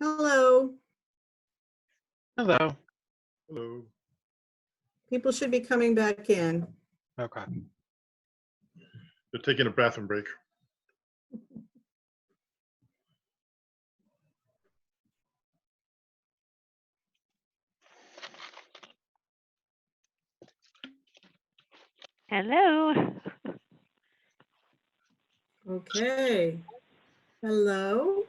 Hello, Hello. Hello. people should be coming back in. Okay. They're taking a bathroom break. Hello. Okay. Hello.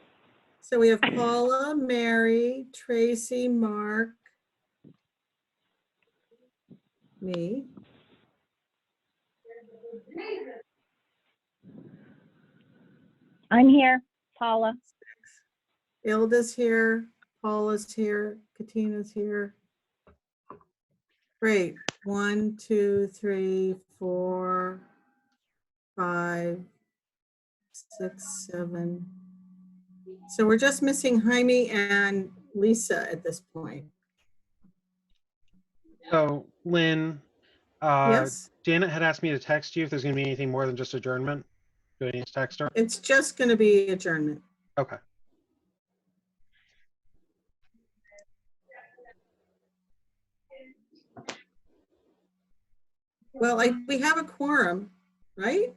So we have Paula, Mary, Tracy, Mark, me. I'm here, Paula. Ilda's here, Paula's here, Katina's here. Great. One, two, three, four, five, six, seven. So we're just missing Jaime and Lisa at this point. So Lynn, uh, Yes, Janet had asked me to text you if there's gonna be anything more than just adjournment. Do I need to text her? it's just going to be adjournment. Okay. Well, I, we have a quorum, right?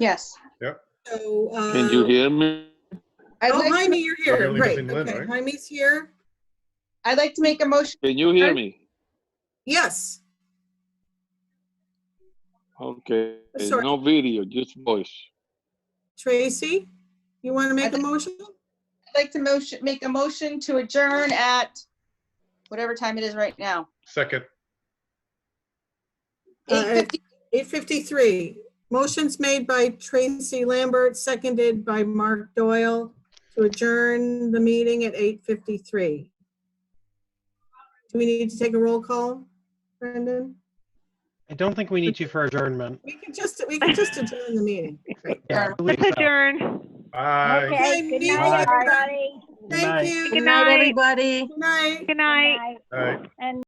Yes, So. Can you uh, hear me? I'd Oh, like, Jaime, you're here. You're only Great. missing Lynn, Okay, right? Jaime's here. I'd like to make a motion, Can you hear me? Yes. Okay, Sorry. no video, just voice. Tracy, you want to make a think- motion? I'd like to motion, make a motion to adjourn at whatever time it is right now. Second, Uh, Eight fifty, 8:53. Motion's made by Tracy Lambert, seconded by Mark Doyle to adjourn the meeting at 8:53. Do we need to take a roll call, Brendan? I don't think we need to for adjournment. We can just, we can just adjourn the meeting. Great. Yeah, I believe Let's so. adjourn. aye. Okay, Okay, me good too. night, everybody. Good night. Thank you. Good Good night. everybody. night. Good night. Aye. And